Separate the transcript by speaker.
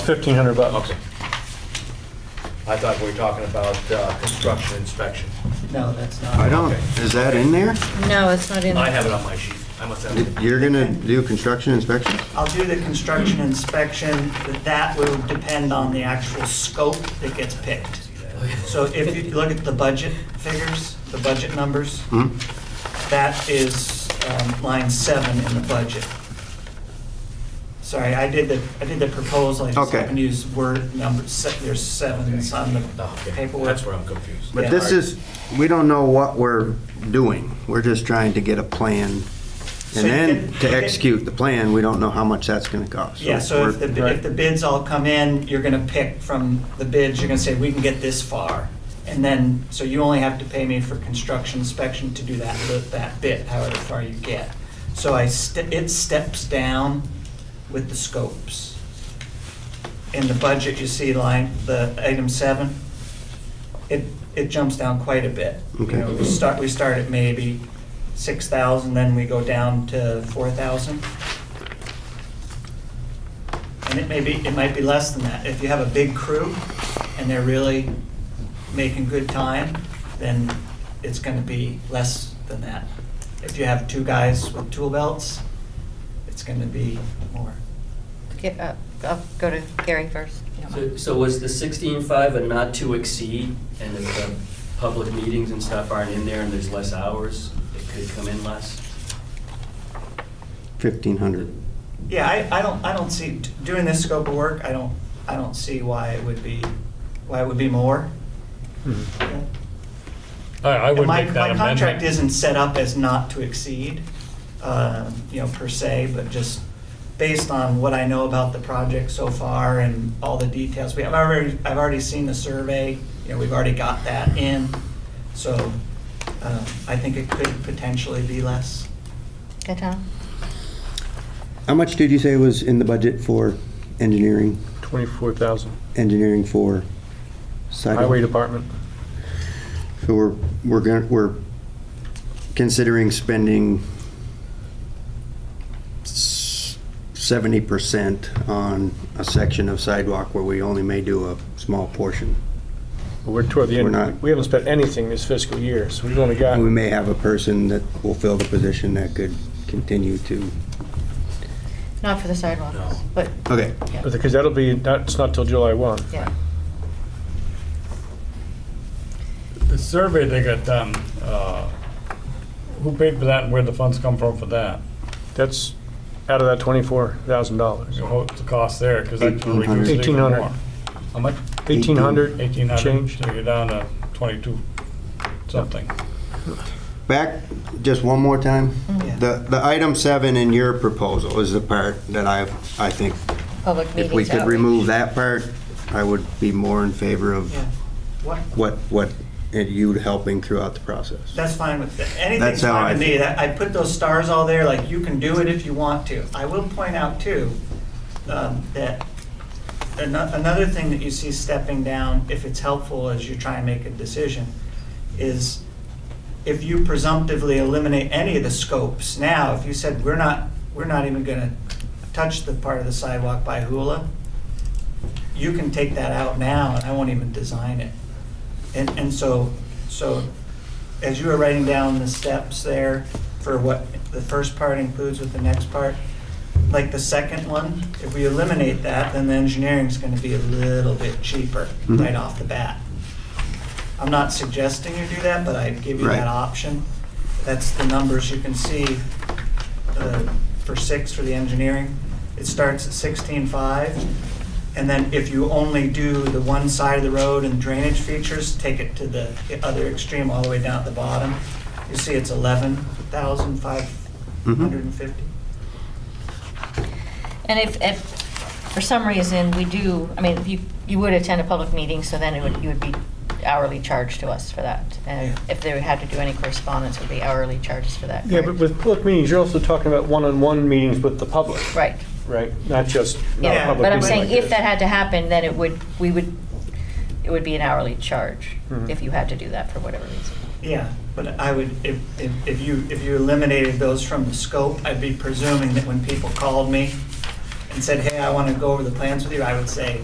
Speaker 1: Fifteen hundred bucks.
Speaker 2: Okay. I thought we were talking about uh, construction inspection.
Speaker 3: No, that's
Speaker 4: I
Speaker 3: not.
Speaker 4: don't, is that in there?
Speaker 5: No, it's not in.
Speaker 2: I have it on my sheet. I must have it.
Speaker 4: You're gonna do construction inspections?
Speaker 3: I'll do the construction inspection, but that will depend on the actual scope that gets picked. So if you look at the budget figures, the budget numbers,
Speaker 4: Hmm?
Speaker 3: that is um, line seven in the budget. Sorry, I did the, I did the proposal, I just
Speaker 4: Okay.
Speaker 3: happened to use word number, se- there's seven, it's on
Speaker 2: Oh,
Speaker 3: the
Speaker 2: okay.
Speaker 3: paperwork.
Speaker 2: That's where I'm confused.
Speaker 4: But this is, we don't know what we're doing. We're just trying to get a plan.
Speaker 3: So
Speaker 4: And
Speaker 3: you
Speaker 4: then
Speaker 3: can-
Speaker 4: to execute the plan, we don't know how much that's gonna cost.
Speaker 3: Yeah, so if
Speaker 4: we're-
Speaker 3: the, if the bids all come in, you're gonna pick from the bids, you're gonna say, we can get this far. And then, so you only have to pay me for construction inspection to do that, li- that bit, however far you get. So I, ste- it steps down with the scopes. In the budget, you see line, the item seven, it, it jumps down quite a bit. You
Speaker 4: Okay.
Speaker 3: know, we start, we start at maybe six thousand, then we go down to four thousand. And it may be, it might be less than that. If you have a big crew and they're really making good time, then it's gonna be less than that. If you have two guys with tool belts, it's gonna be more.
Speaker 5: Get up. I'll go to Gary first.
Speaker 6: So- So was the sixteen-five a not to exceed, and if the public meetings and stuff aren't in there and there's less hours, it could come in less?
Speaker 4: 1,500.
Speaker 3: Yeah, I, I don't, I don't see, doing this scope of work, I don't, I don't see why it would be, why it would be more.
Speaker 1: Mhm.
Speaker 3: Yeah.
Speaker 1: I, I would
Speaker 3: My,
Speaker 1: make that
Speaker 3: my
Speaker 1: amendment.
Speaker 3: contract isn't set up as not to exceed, um, you know, per se, but just based on what I know about the project so far and all the details. We have already, I've already seen the survey, you know, we've already got that in. So uh, I think it could potentially be less.
Speaker 5: Okay, Tom?
Speaker 4: How much did you say was in the budget for engineering,
Speaker 1: Twenty-four thousand,
Speaker 4: engineering for site?
Speaker 1: highway department.
Speaker 4: So we're, we're gonna, we're considering spending seventy percent on a section of sidewalk where we only may do a small portion.
Speaker 1: We're toward the
Speaker 4: We're not-
Speaker 1: end, we haven't spent anything this fiscal year, so we've only got,
Speaker 4: And we may have a person that will fill the position that could continue to,
Speaker 5: Not for the sidewalks.
Speaker 2: No.
Speaker 5: But,
Speaker 4: okay,
Speaker 5: yeah,
Speaker 1: because that'll be, that's not till July one.
Speaker 5: yeah.
Speaker 7: The survey they got done, uh, who paid for that and where the funds come from for that?
Speaker 1: That's out of that twenty-four thousand dollars.
Speaker 7: So What's the cost there? Because that's gonna reduce it even
Speaker 1: 1,800.
Speaker 7: more. How much?
Speaker 1: Eighteen hundred
Speaker 7: Eighteen hundred,
Speaker 1: change.
Speaker 7: so you're down to twenty-two something.
Speaker 4: Back, just one more time.
Speaker 3: Yeah.
Speaker 4: Mm-hmm. The, the item seven in your proposal is the part that I, I think,
Speaker 5: Public meetings.
Speaker 4: if we could
Speaker 5: outreach.
Speaker 4: remove that part, I would be more in favor of
Speaker 3: Yeah. What,
Speaker 4: what, what you helping throughout the process.
Speaker 3: that's fine with, anything's
Speaker 4: That's how
Speaker 3: fine with
Speaker 4: I-
Speaker 3: me. That- I put those stars all there, like you can do it if you want to. I will point out too, um, that ano- another thing that you see stepping down, if it's helpful as you try and make a decision, is if you presumptively eliminate any of the scopes now, if you said, we're not, we're not even gonna touch the part of the sidewalk by Hula, you can take that out now and I won't even design it. And, and so, so as you were writing down the steps there for what the first part includes with the next part, like the second one, if we eliminate that, then the engineering's gonna be a little bit cheaper
Speaker 4: Mhm.
Speaker 3: right off the bat. I'm not suggesting you do that, but I'd give you
Speaker 4: Right.
Speaker 3: that option. That's the numbers you can see uh, for six for the engineering. It starts at sixteen-five, and then if you only do the one side of the road and drainage features, take it to the other extreme, all the way down at the bottom. You see it's eleven thousand five hundred and fifty.
Speaker 5: And if, if, for some reason, we do, I mean, you, you would attend a public meeting, so then it would, you would be hourly charged to us for that. And if they had to do any correspondence, it would be hourly charges for that,
Speaker 1: Yeah, but
Speaker 5: correct?
Speaker 1: with public meetings, you're also talking about one-on-one meetings with the public,
Speaker 5: Right.
Speaker 1: right? Not just, not a
Speaker 3: Yeah,
Speaker 1: public
Speaker 5: But I'm
Speaker 1: meeting
Speaker 5: saying,
Speaker 1: like
Speaker 5: if
Speaker 1: this.
Speaker 5: that had to happen, then it would, we would, it would be an hourly charge
Speaker 4: Mm-hmm.
Speaker 1: Mhm.
Speaker 5: if you had to do that for whatever reason.
Speaker 3: Yeah, but I would, if, if if you, if you eliminated those from the scope, I'd be presuming that when people called me, and said, hey, I want to go over the plans with you, I would say,